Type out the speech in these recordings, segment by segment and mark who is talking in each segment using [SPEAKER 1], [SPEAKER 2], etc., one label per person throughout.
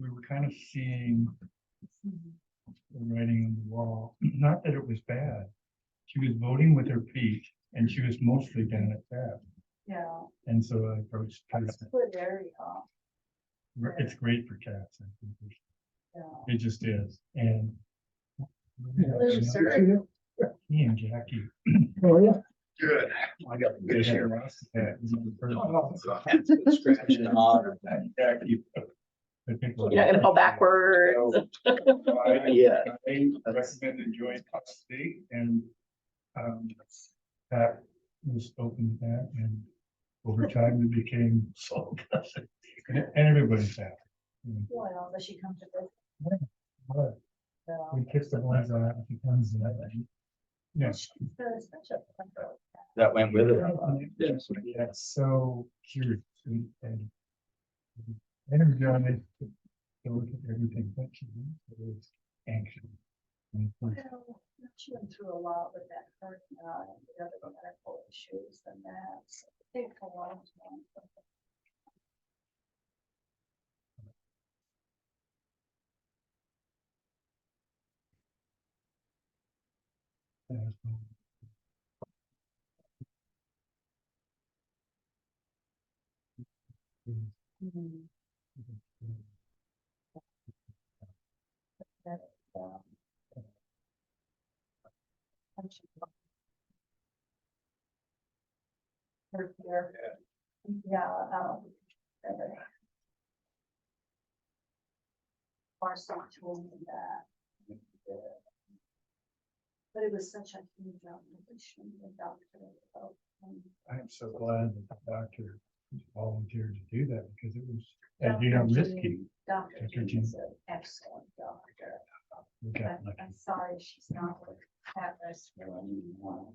[SPEAKER 1] we were kind of seeing the writing on the wall, not that it was bad. She was voting with her feet and she was mostly down at that.
[SPEAKER 2] Yeah,
[SPEAKER 1] And so I approached, Pat.
[SPEAKER 2] it's a good area,
[SPEAKER 1] it's great for cats. I think.
[SPEAKER 2] yeah.
[SPEAKER 1] It just is, and.
[SPEAKER 2] There's a survey.
[SPEAKER 1] Me and Jackie.
[SPEAKER 3] Oh, yeah.
[SPEAKER 4] Good. I got
[SPEAKER 1] They
[SPEAKER 4] this
[SPEAKER 1] had
[SPEAKER 4] here.
[SPEAKER 1] Ross at the first-
[SPEAKER 3] Oh,
[SPEAKER 4] Scratch and nod. Yeah, you-
[SPEAKER 1] I think we're-
[SPEAKER 5] You're not gonna fall backwards.
[SPEAKER 4] Yeah.
[SPEAKER 1] I recommend enjoying Puck State and, um, that was open to that and over time it became so. And everybody's happy.
[SPEAKER 2] Well, unless she comes to this,
[SPEAKER 1] But
[SPEAKER 2] uh,
[SPEAKER 1] we kicked the ones out, it becomes that. Yes.
[SPEAKER 2] there's such a-
[SPEAKER 4] That went with it.
[SPEAKER 1] Yes. Yeah, so curious and. and Energetic. to look at everything, but she was anxious. And it's like,
[SPEAKER 2] Well, She went through a lot with that hurt, uh, and the other medical issues and that, so it takes a long time.
[SPEAKER 1] uh,
[SPEAKER 2] um, and she- Her fear. Yeah, um. uh, Marcy told me that. uh, But it was such a huge operation, the doctor. felt, um,
[SPEAKER 1] I am so glad that the doctor volunteered to do that because it was,
[SPEAKER 2] Yeah,
[SPEAKER 1] and you know,
[SPEAKER 2] absolutely.
[SPEAKER 1] risky.
[SPEAKER 2] Dr.
[SPEAKER 1] Dr.
[SPEAKER 2] Jean
[SPEAKER 1] Jean.
[SPEAKER 2] is an excellent doctor.
[SPEAKER 1] We got
[SPEAKER 2] I'm,
[SPEAKER 1] lucky.
[SPEAKER 2] I'm sorry she's not with Atlas really anymore.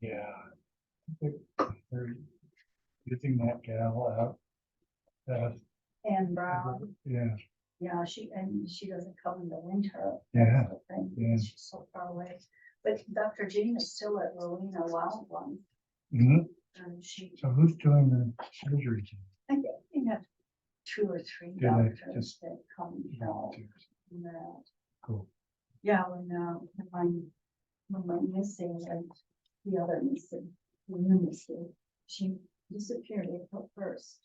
[SPEAKER 1] Yeah. They're Getting that gal out. That,
[SPEAKER 2] And
[SPEAKER 1] Uh-huh.
[SPEAKER 2] Brown,
[SPEAKER 1] yeah,
[SPEAKER 2] yeah, she, and she doesn't come in the winter.
[SPEAKER 1] yeah,
[SPEAKER 2] sort of thing,
[SPEAKER 1] yeah.
[SPEAKER 2] She's so far away. But Dr. Jean is still at Rowena Wild One,
[SPEAKER 1] Mhm.
[SPEAKER 2] and she,
[SPEAKER 1] so who's doing the surgery?
[SPEAKER 2] I think they have two or three
[SPEAKER 1] Do they
[SPEAKER 2] doctors
[SPEAKER 1] just-
[SPEAKER 2] that come and help.
[SPEAKER 1] Volunteers.
[SPEAKER 2] and that.
[SPEAKER 1] Cool.
[SPEAKER 2] Yeah, when, uh, when I'm, when my missing and the other missing, the new missing, she disappeared April first.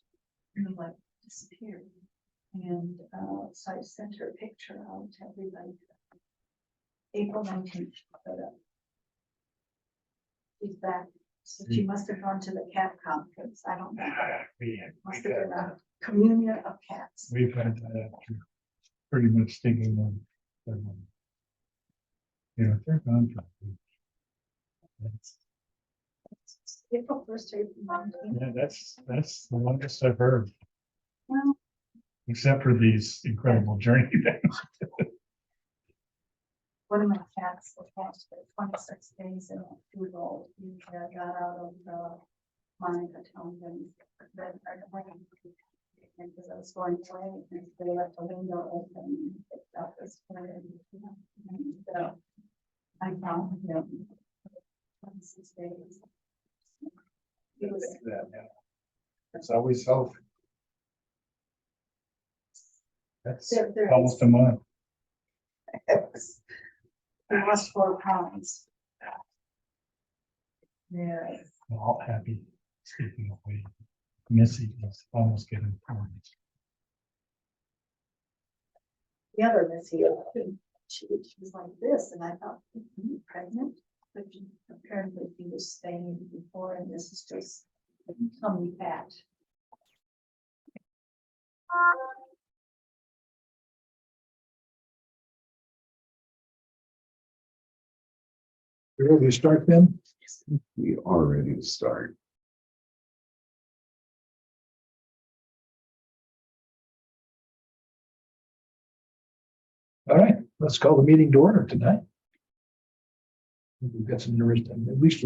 [SPEAKER 2] And like disappeared. And, uh, so I sent her a picture out to everybody. April nineteenth, she showed up. She's back, so she must have gone to the cat conference, I don't know,
[SPEAKER 1] We had-
[SPEAKER 2] must have
[SPEAKER 1] we
[SPEAKER 2] been
[SPEAKER 1] had-
[SPEAKER 2] a communion of cats.
[SPEAKER 1] We've had that after pretty much thinking of. their money. You know, they're gone. for a week. That's-
[SPEAKER 2] April first, April nineteenth,
[SPEAKER 1] Yeah, that's, that's the longest I've heard.
[SPEAKER 2] well,
[SPEAKER 1] Except for these incredible journey things.
[SPEAKER 2] one of my cats was lost for twenty-six days in a food hole. He uh, got out of the Monica Town and then I went and because I was going away and they left the window open and picked up his food and, you know, and, uh, I found him. Twenty-six days. He was,
[SPEAKER 1] It's always health. That's
[SPEAKER 2] there, there
[SPEAKER 1] almost a month.
[SPEAKER 2] is. He lost four pounds. Yeah.
[SPEAKER 1] We're all happy. Speaking of weight, Missy is almost getting pregnant.
[SPEAKER 2] the other Miss here, she, she was like this, and I thought, "Are you pregnant? But she- apparently he was staying before, and this is just tummy fat.
[SPEAKER 3] You ready to start then?
[SPEAKER 4] We are ready to start.
[SPEAKER 3] All right, let's call the meeting to order tonight. We've got some interesting, at least